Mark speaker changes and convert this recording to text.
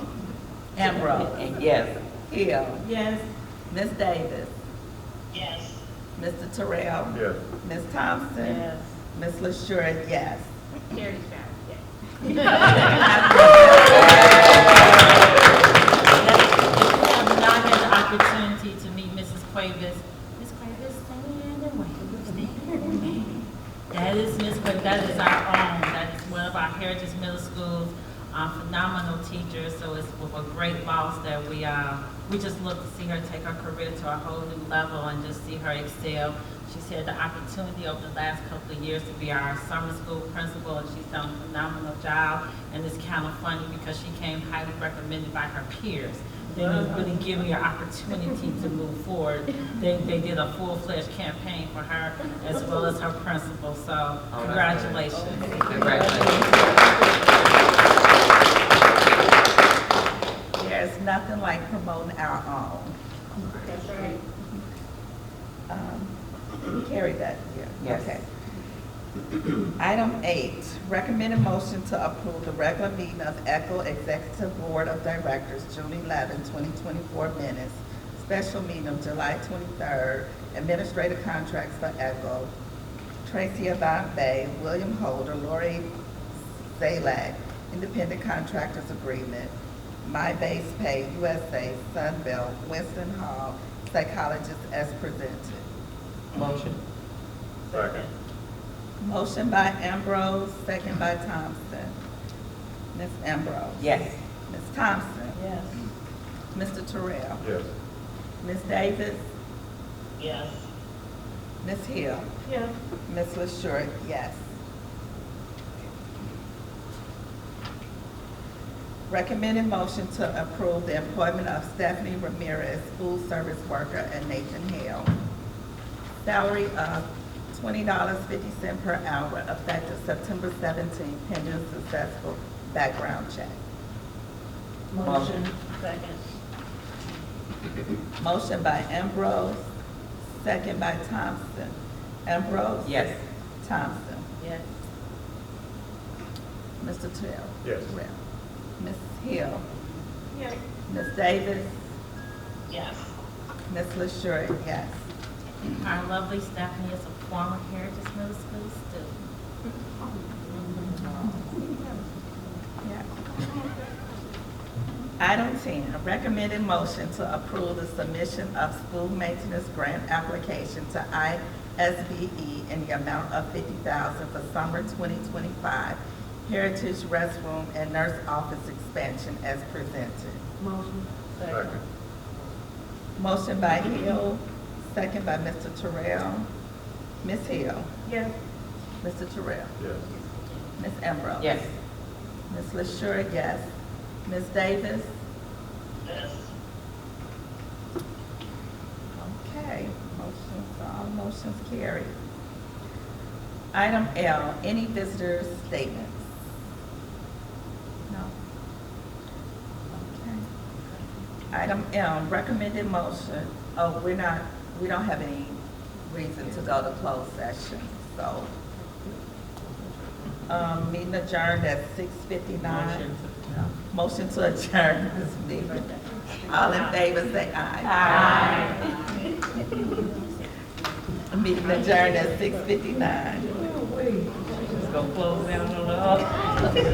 Speaker 1: Ambrose,
Speaker 2: Yes.
Speaker 1: Hill,
Speaker 3: Yes.
Speaker 1: Ms. Davis,
Speaker 4: yes,
Speaker 1: Mr. Terrell,
Speaker 5: yes,
Speaker 1: Ms. Thompson, Ms. LaShure, yes.
Speaker 3: Carrie Stroud, yes. We have not had the opportunity to meet Mrs. Cuevas. Ms. Cuevas, stand and wave, stand. That is Ms. Cuevas, that is our own, that is one of our Heritage Middle Schools, uh, phenomenal teacher, so it's with a great loss that we, uh, we just look to see her take her career to a whole new level and just see her excel. She's had the opportunity over the last couple of years to be our summer school principal, and she's done a phenomenal job. And it's kind of funny because she came highly recommended by her peers. They didn't really give her an opportunity to move forward. They, they did a full-fledged campaign for her as well as her principal, so
Speaker 2: good.
Speaker 3: congratulations.
Speaker 2: Congratulations.
Speaker 1: There's nothing like promoting our own.
Speaker 4: that's right.
Speaker 1: Um, We carry that here.
Speaker 2: Yes.
Speaker 1: Okay. Item eight, recommended motion to approve the regular meeting of ECHO Executive Board of Directors, June 11, 2024 minutes, special meeting of July 23rd, administrative contracts for ECHO, Tracy Avant Bay, William Holder, Lori Zalak, independent contractors agreement, My Base Pay USA, Sunbelt, Winston Hall, psychologist as presented.
Speaker 2: Motion.
Speaker 5: second,
Speaker 1: Motion by Ambrose, second by Thompson. Ms. Ambrose?
Speaker 2: Yes.
Speaker 1: Ms. Thompson?
Speaker 3: Yes.
Speaker 1: Mr. Terrell?
Speaker 5: yes,
Speaker 1: Ms. Davis?
Speaker 4: Yes,
Speaker 1: Ms. Hill?
Speaker 3: Yes.
Speaker 1: Ms. LaShure, yes. Recommended motion to approve the employment of Stephanie Ramirez, food service worker, and Nathan Hale. Salary of twenty dollars fifty cent per hour, effective September seventeenth, pending successful background check.
Speaker 2: Motion.
Speaker 4: second,
Speaker 1: Motion by Ambrose, second by Thompson. Ambrose?
Speaker 2: Yes.
Speaker 1: Thompson?
Speaker 3: Yes.
Speaker 1: Mr. Terrell?
Speaker 5: Yes.
Speaker 1: Terrell. Ms. Hill?
Speaker 3: Yes.
Speaker 1: Ms. Davis?
Speaker 4: yes,
Speaker 1: Ms. LaShure, yes.
Speaker 3: Our lovely Stephanie is a former Heritage Middle School student.
Speaker 1: Yeah. Item 10, recommended motion to approve the submission of school maintenance grant application to ISBE E in the amount of 50000 for summer 2025 Heritage Restroom and Nurse Office Expansion as presented.
Speaker 5: second,
Speaker 1: Motion by Hill, second by Mr. Terrell. Ms. Hill.
Speaker 3: Yes.
Speaker 1: Mr. Terrell.
Speaker 5: yes,
Speaker 1: Ms. Ambrose.
Speaker 2: Yes.
Speaker 1: Ms. LaShure, yes. Ms. Davis.
Speaker 4: yes,
Speaker 1: Okay, motions, all motions carried. Item L, any visitors' statements? No? Okay. Item M, recommended motion, oh, we're not, we don't have any reason to go to closed session, so. Um, meeting adjourned at six fifty-nine.
Speaker 2: Motion.
Speaker 1: Motion to adjourn this meeting. All in favor, say aye. Aye. Meeting adjourned at six fifty-nine.
Speaker 2: Just gonna close down on the.